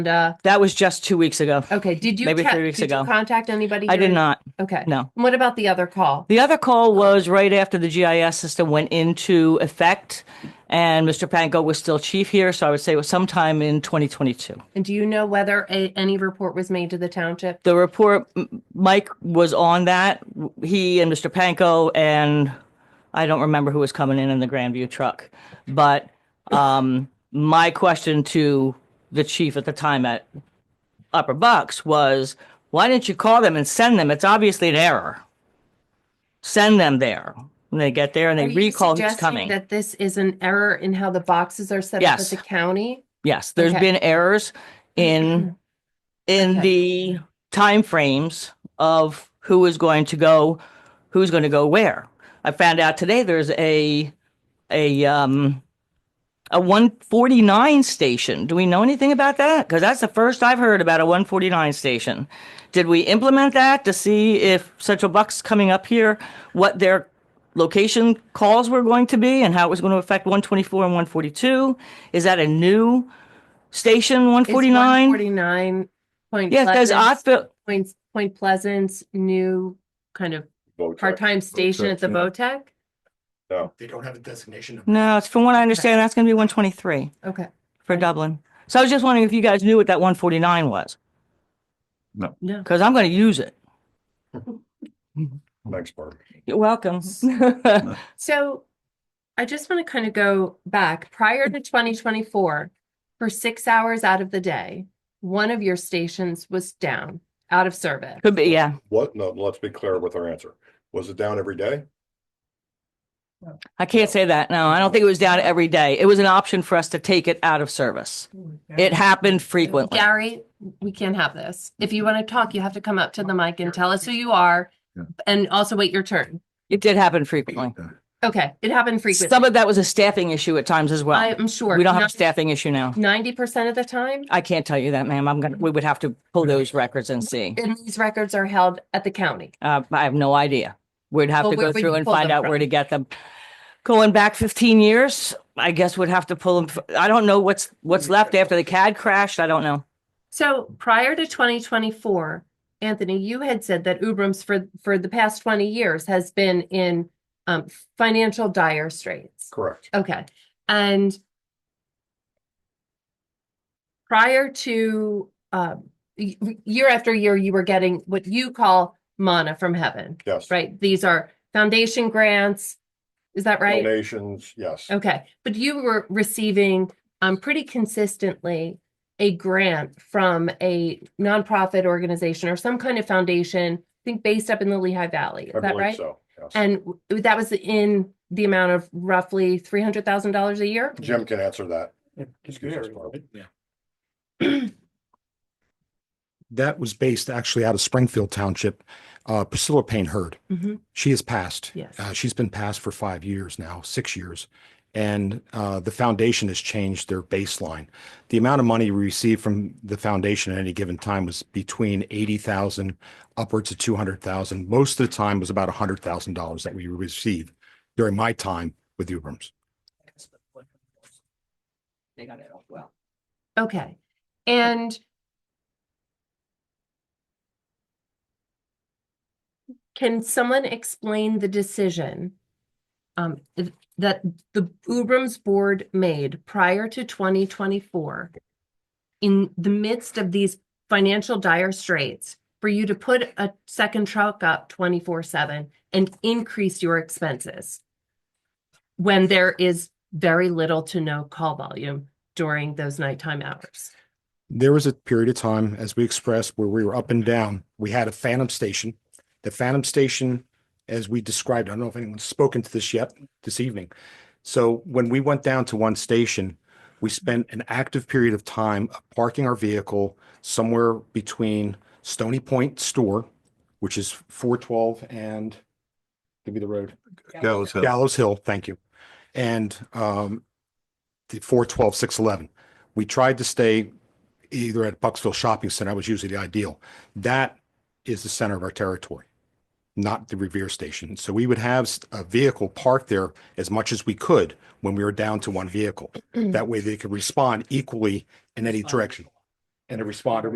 uh, That was just two weeks ago. okay, did you? Maybe ca- three weeks did you ago. Contact anybody? I here did in- not, Okay. no. And What about the other call? The other call was right after the GIS system went into effect, and Mr. Panko was still chief here, so I would say it was sometime in 2022. And do you know whether a, any report was made to the township? The report, M- Mike was on that, he and Mr. Panko, and I don't remember who was coming in in the Grandview truck. But um, my question to the chief at the time at Upper Bucks was, why didn't you call them and send them? It's obviously an error. Send them there. And they get there and they Are you recall who's suggesting coming. That this is an error in how the boxes are set up at Yes. the county? Yes, there's Okay. been errors in, in the timeframes of who is going to go, who's going to go where. I found out today there's a, a, um, a 149 station. Do we know anything about that? Because that's the first I've heard about a 149 station. Did we implement that to see if Central Bucks coming up here, what their location calls were going to be and how it was going to affect 124 and 142? Is that a new station, 149? Forty-nine point. Yeah, because I Pleasant, feel, Point, Point Pleasant's new kind of part-time station at the VOTEC? They don't have a designation of no, it's from what I understand, that's going to be 123 Okay. for Dublin. So I was just wondering if you guys knew what that 149 was, No. because I'm going to use it. next part. You're welcome. So I just want to kind of go back prior to 2024, for six hours out of the day, one of your stations was down, out of service. Could be, yeah. What? No, let's be clear with our answer. Was it down every day? I can't say that. No, I don't think it was down every day. It was an option for us to take it out of service. It happened frequently. Gary, we can't have this. If you want to talk, you have to come up to the mic and tell us who you are Yeah. and also wait your turn. It did happen frequently. Okay, it happened frequently. Some of that was a staffing issue at times as well. I'm sure. We don't have a staffing issue now. Ninety percent of the time, I can't tell you that, ma'am. I'm gonna, we would have to pull those records and see. and these records are held at the county. Uh, I have no idea. We'd have Well, to where go would through you and pull find them out where from? to get them. Going back fifteen years, I guess we'd have to pull them. f- I don't know what's, what's left after the CAD crashed. I don't know. So prior to twenty twenty-four, Anthony, you had said that Ubrams for, for the past twenty years has been in um, financial dire straits. Correct. Okay, and prior to, um, y- y- year after year, you were getting what you call mana from heaven, Yes. right? These are foundation grants. Is that right? Donations, yes. Okay, but you were receiving um pretty consistently a grant from a nonprofit organization or some kind of foundation, I think based up in the Lehigh Valley, I is that believe right? so. yes. And w- that was in the amount of roughly three hundred thousand dollars a year? Jim can answer that. Excuse us, Barb. that was based actually out of Springfield Township. Uh, Priscilla Payne Hurd. She has passed. Yes. Uh, she's been passed for five years now, six years. And uh, the foundation has changed their baseline. The amount of money we received from the foundation at any given time was between 80,000 upwards to 200,000. Most of the time was about $100,000 that we received during my time with Uberms. They got it off well. Okay, and can someone explain the decision um, th- that the Ubrams board made prior to twenty twenty-four in the midst of these financial dire straits for you to put a second truck up twenty-four seven and increase your expenses when there is very little to no call volume during those nighttime hours. There was a period of time, as we expressed, where we were up and down. We had a phantom station. The phantom station, as we described, I don't know if anyone's spoken to this yet this evening. So when we went down to one station, we spent an active period of time of parking our vehicle somewhere between Stony Point Store, which is four twelve and give me the road. Gallows Hill. Gallows Hill, thank you. And um, the four twelve, six eleven. We tried to stay either at Bucksville Shopping Center, that was usually the ideal. That is the center of our territory, not the Revere Station. So we would have s- a vehicle parked there as much as we could when we were down to one vehicle. That way they could respond equally in any direction. and a responder